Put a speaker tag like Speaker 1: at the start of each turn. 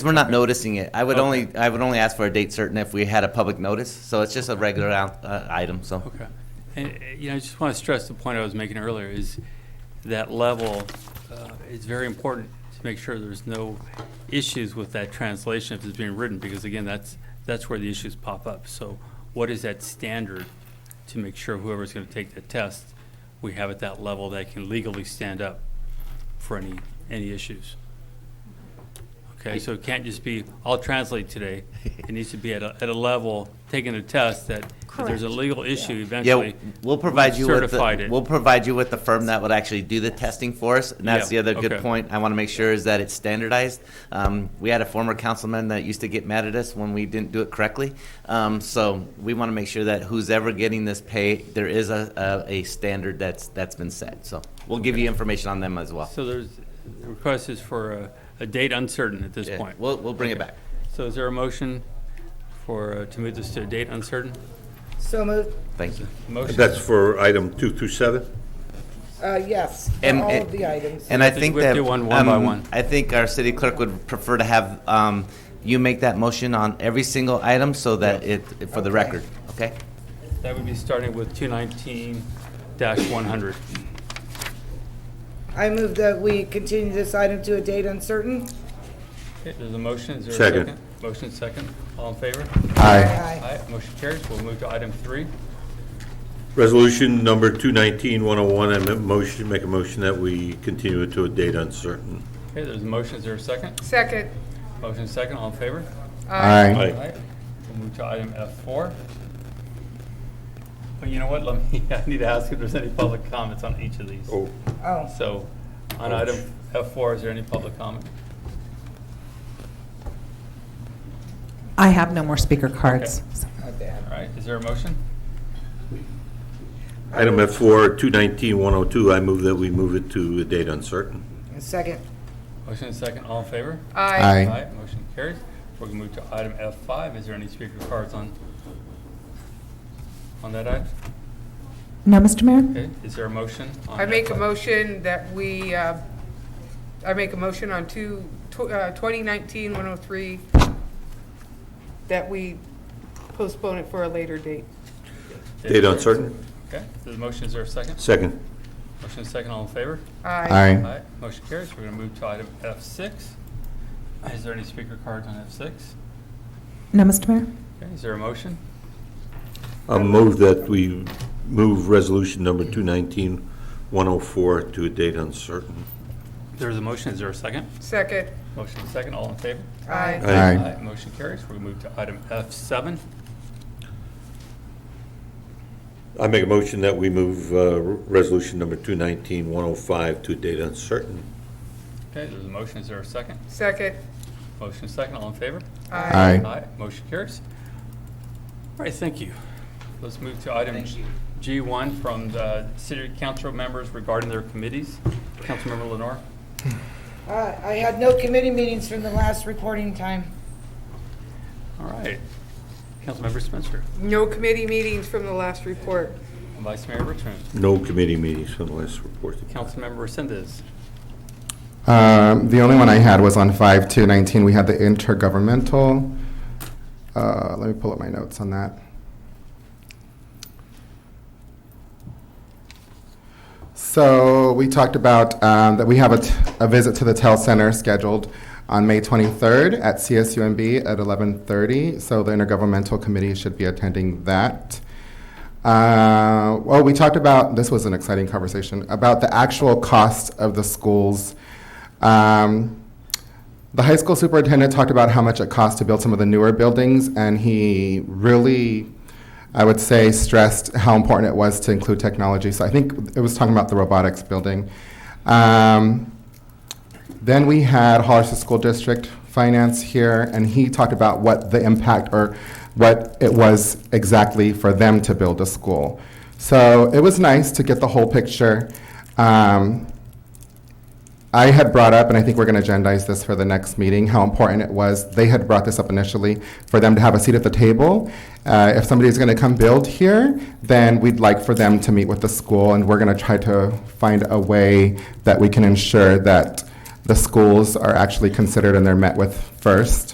Speaker 1: We're not noticing it. I would only, I would only ask for a date certain if we had a public notice, so it's just a regular out- uh, item, so.
Speaker 2: Okay. And, uh, you know, I just want to stress the point I was making earlier is that level uh, is very important to make sure there's no issues with that translation if it's being written, because again, that's, that's where the issues pop up. So what is that standard to make sure whoever's going to take the test, we have at that level that can legally stand up for any, any issues? Okay, so it can't just be, I'll translate today. It needs to be at a, at a level, taking a test that if there's a
Speaker 3: Correct.
Speaker 2: legal issue
Speaker 1: Yeah,
Speaker 2: eventually.
Speaker 1: we'll provide you with,
Speaker 2: certified
Speaker 1: the-
Speaker 2: it.
Speaker 1: we'll provide you with the firm that would actually do the testing for us, and that's the
Speaker 2: Yeah,
Speaker 1: other good
Speaker 2: okay.
Speaker 1: point I want to make sure is that it's standardized. Um, We had a former councilman that used to get mad at us when we didn't do it correctly, Um, so we want to make sure that who's ever getting this pay, there is a, a a standard that's, that's been set, so we'll give you information on them as well.
Speaker 2: So there's, the request is for a, a date uncertain at this
Speaker 1: Yeah,
Speaker 2: point.
Speaker 1: We'll, we'll bring it back.
Speaker 2: So is there a motion for, uh, to move this to a date uncertain?
Speaker 4: So moved,
Speaker 1: Thank you.
Speaker 2: Motion?
Speaker 5: That's for item 227?
Speaker 4: uh, yes, for
Speaker 1: And-
Speaker 4: all
Speaker 1: and-
Speaker 4: of the items.
Speaker 1: And I
Speaker 2: think
Speaker 1: think
Speaker 2: we have
Speaker 1: that.
Speaker 2: to do one- one by
Speaker 1: um,
Speaker 2: one.
Speaker 1: I think our city clerk would prefer to have um, you make that motion on every single item so that it, for the record, okay?
Speaker 2: That would be starting with two nineteen one hundred.
Speaker 4: I move that we continue this item to a date uncertain.
Speaker 2: Okay, there's a motion, is there a
Speaker 5: Second.
Speaker 2: second? Motion second, all in favor?
Speaker 4: Aye.
Speaker 2: Aye, motion carries, we'll move to item three.
Speaker 5: Resolution number 219-101, I make a motion, make a motion that we continue it to a date uncertain.
Speaker 2: Okay, there's a motion, is there a second?
Speaker 6: Second.
Speaker 2: Motion second, all in favor?
Speaker 3: Aye.
Speaker 2: Aye. We'll move to item F4. Well, you know what, let me, I need to ask if there's any public comments on each of these.
Speaker 5: Oh,
Speaker 4: Oh,
Speaker 2: So, on item F4, is there any public comment?
Speaker 3: I have no more speaker cards.
Speaker 4: my bad.
Speaker 2: All right, is there a motion?
Speaker 5: Item F4, 219-102, I move that we move it to a date uncertain.
Speaker 4: And Second,
Speaker 2: Motion and second, all in favor?
Speaker 6: Aye.
Speaker 2: motion carries. We're going to move to item F5. Is there any speaker cards on, on that item?
Speaker 3: No, Mr. Mayor?
Speaker 2: Okay, is there a motion? on
Speaker 6: I make a
Speaker 2: F5?
Speaker 6: motion that we, uh, I make a motion on two, tw- uh, 2019-103, that we postpone it for a later date.
Speaker 5: Date uncertain?
Speaker 2: Okay, the motion, is there a second?
Speaker 5: Second.
Speaker 2: Motion and second, all in favor?
Speaker 6: Aye.
Speaker 2: Aye, motion carries. We're going to move to item F6. Is there any speaker cards on F6?
Speaker 3: No, Mr. Mayor?
Speaker 2: Okay, is there a motion?
Speaker 5: I'll move that we move resolution number 219-104 to a date uncertain.
Speaker 2: There's a motion, is there a second?
Speaker 6: Second.
Speaker 2: Motion and second, all in favor?
Speaker 4: Aye.
Speaker 5: Aye.
Speaker 2: Motion carries. We're going to move to item F7.
Speaker 5: I make a motion that we move uh, resolution number 219-105 to a date uncertain.
Speaker 2: Okay, there's a motion, is there a second?
Speaker 6: Second.
Speaker 2: Motion is second, all in favor?
Speaker 6: Aye.
Speaker 2: Aye, motion carries. All right, thank you. Let's move to item
Speaker 1: Thank you.
Speaker 2: G1 from the city council members regarding their committees. Councilmember Lenore?
Speaker 4: Uh, I had no committee meetings from the last reporting time.
Speaker 2: All right. Councilmember Spencer?
Speaker 6: No committee meetings from the last report.
Speaker 2: Vice Mayor Richmond?
Speaker 5: No committee meetings from the last report.
Speaker 2: Councilmember Resendez?
Speaker 7: Um, The only one I had was on 5 to 19, we had the intergovernmental. Uh, Let me pull up my notes on that. So we talked about um, that we have a t- a visit to the TEL Center scheduled on May 23rd at CSUMB at 11:30, so the intergovernmental committee should be attending that. Uh, well, we talked about this was an exciting conversation about the actual cost of the schools. Um, the high school superintendent talked about how much it costs to build some of the newer buildings, and he really, I would say, stressed how important it was to include technology. So I think it was talking about the robotics building. Um, then we had Hollister School District Finance here, and he talked about what the impact or what it was exactly for them to build a school. So it was nice to get the whole picture. Um, I had brought up, and I think we're going to agendize this for the next meeting, how important it was. They had brought this up initially for them to have a seat at the table. Uh, if somebody's going to come build here, then we'd like for them to meet with the school, and we're going to try to find a way that we can ensure that the schools are actually considered and they're met with first.